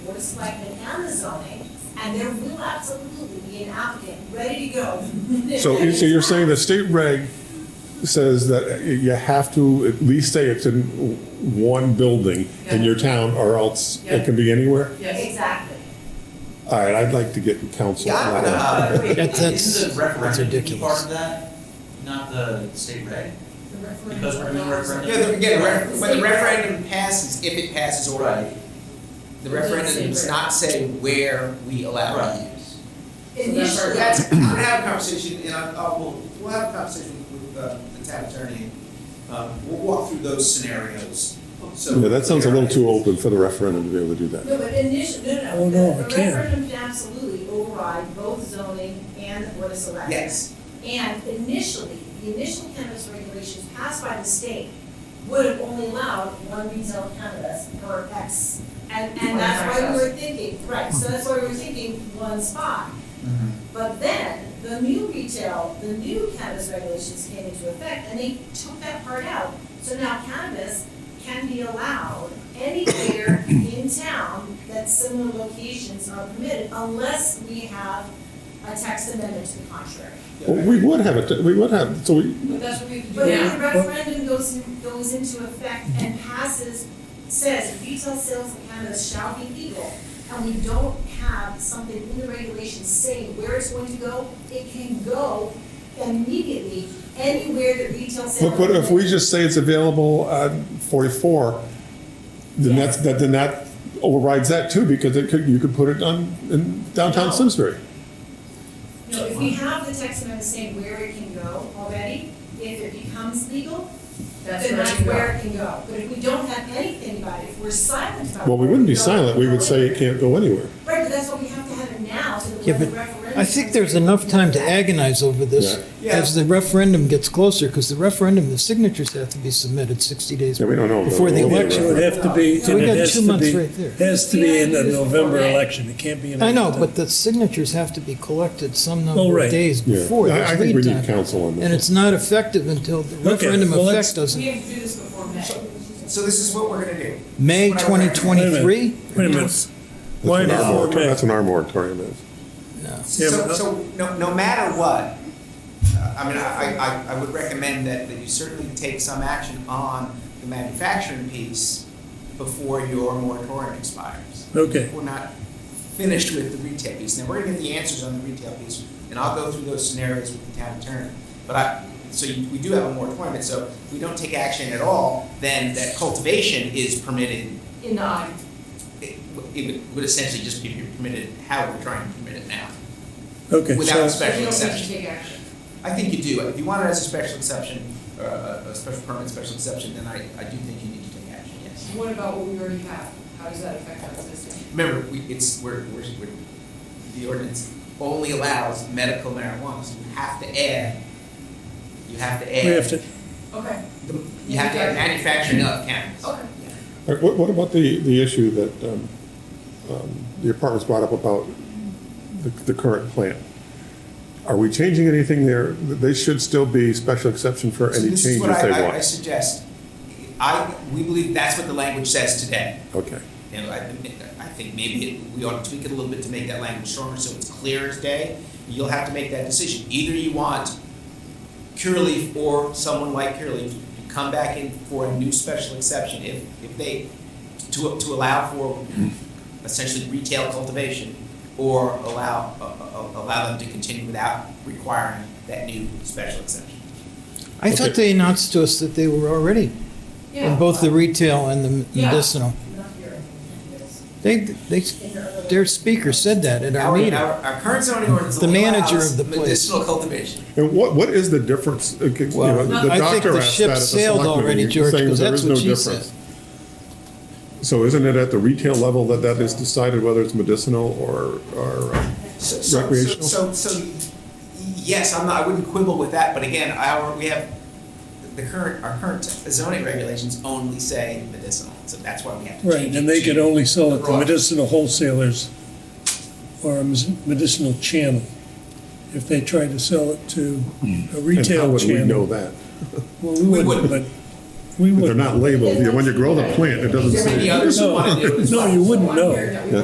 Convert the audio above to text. Wegman and the zoning, and there will absolutely be an applicant ready to go. So, you- so you're saying the state reg says that you have to at least say it's in one building in your town or else it can be anywhere? Yes. Exactly. All right, I'd like to get counsel Yeah, on that. I Uh, don't know. That- that's- Isn't the referendum that's key part of that, not the state reg? The referendum Because we're doing referendum. Yeah, the- again, ref- when the referendum passes, if it passes already, Right, the referendum does not say where we allow it to use. Initially, That's, I'm gonna have a conversation, and I, I will, we'll have a conversation with, uh, the town attorney. Um, we'll walk through those scenarios, so. Yeah, that sounds a little too open for the referendum to be able to do that. No, but initially, no, no. Oh, no, the- it can't. The referendum can absolutely override both zoning and the board of selectmen. Yes, And initially, the initial cannabis regulations passed by the state would have only allowed one retail cannabis per X. And, and that's why we were thinking, right, so that's why we were thinking one spot. But then, the new retail, the new cannabis regulations came into effect, and they took that part out. So now cannabis can be allowed anywhere in town that similar locations are permitted, unless we have a text amendment to the contrary. Well, we would have it, we would have, so we, But that's what we have to But do if the now. referendum goes, in- goes into effect and passes, says retail sales in Canada shall be legal, and we don't have something in the regulations saying where it's going to go, it can go immediately anywhere that retail sales. but, but if we just say it's available on forty-four, then that's, that, then that overrides that too, because it could, you could put it on, in downtown Simsbury. No, if we have the text amendment saying where it can go already, if it becomes legal, That's then where that's we where are. it can go. But if we don't have anything about it, if we're silent about it. Well, we wouldn't be where it silent, we would goes, say it can't go anywhere. Right, but that's what we have to have it now, so that Yeah, when the but referendum. I think there's enough time to agonize over this Yeah. as the referendum gets closer, because the referendum, the signatures have to be submitted 60 days Yeah, we don't know. before the We'll be election. So it'd have to be, So we and got it has two to months be, right there. has to be in the November election, it can't be in. I know, the- but the signatures have to be collected some Oh, number right. of days Yeah. before. I- I There's think we lead need time. counsel on And this. it's not effective until the Okay, referendum well, let's- effect doesn't, We have to do this before May. so this is what we're gonna do. May Whatever. Wait a minute. 2023? Wait a minute. That's what Why our before moratorium- May? That's what our moratorium is. Yeah, So, but- so, no, no matter what, uh, I mean, I, I, I would recommend that, that you certainly take some action on the manufacturing piece before your moratorium expires. Okay. We're not finished with the retail piece. Now, we're gonna get the answers on the retail piece, and I'll go through those scenarios with the town attorney. But I, so you, we do have a moratorium, so if we don't take action at all, then that cultivation is permitted. In the audience. It would- it would- would essentially just be permitted how we're trying to permit it now, Okay, without a so, special exception. We don't need to take action. I think you do. If you want it as a special exception, or a, a special permit, special exception, then I, I do think you need to take action, yes. What about what we already have? How does that affect our existing? Remember, we, it's, we're, we're, we're, the ordinance only allows medical marijuana, so you have to add, you have to add. we have to, Okay, the- You have to add manufacturing of cannabis. okay. All right, What, what about the, the issue that, um, um, the apartments brought up about the, the current plan? Are we changing anything there? They should still be special exception for So any this is changes what I- they I, I want. suggest. I, we believe that's what the language says today. Okay, And I, I think maybe it- we ought to tweak it a little bit to make that language stronger so it's clear as day. You'll have to make that decision. Either you want Curaleaf or someone like Curaleaf to come back in for a new special exception if, if they, to, to allow for essentially retail cultivation or allow, uh, uh, allow them to continue without requiring that new special exception. I thought they announced to us that they were already in Yeah. both the retail and the Yeah. medicinal. They, they, their speaker said that at our Our, meeting. our, our current zoning ordinance The manager of allows the place. medicinal cultivation. and what, what is the difference? Okay, you know, Well, the I think doctor the asked ship that at the sailed select already, meeting, George, saying 'cause there that's is no what she difference. So isn't it at the retail level that that is decided whether it's medicinal or, or um, So- so- so- Recreational? So, so, yes, I'm not, I wouldn't quibble with that, but again, our, we have, the current, our current zoning regulations only say medicinal, so that's why we have to change right, and they it could to- only sell it to Right. medicinal wholesalers or a medicinal channel. If they tried to sell it to a Hmm. and how retail would we know channel. that? Well, we wouldn't, but, we They're wouldn't. not labeled, You know, when you grow the plant, it doesn't There may say. be others who want to do it as No, well. you wouldn't One know. year that we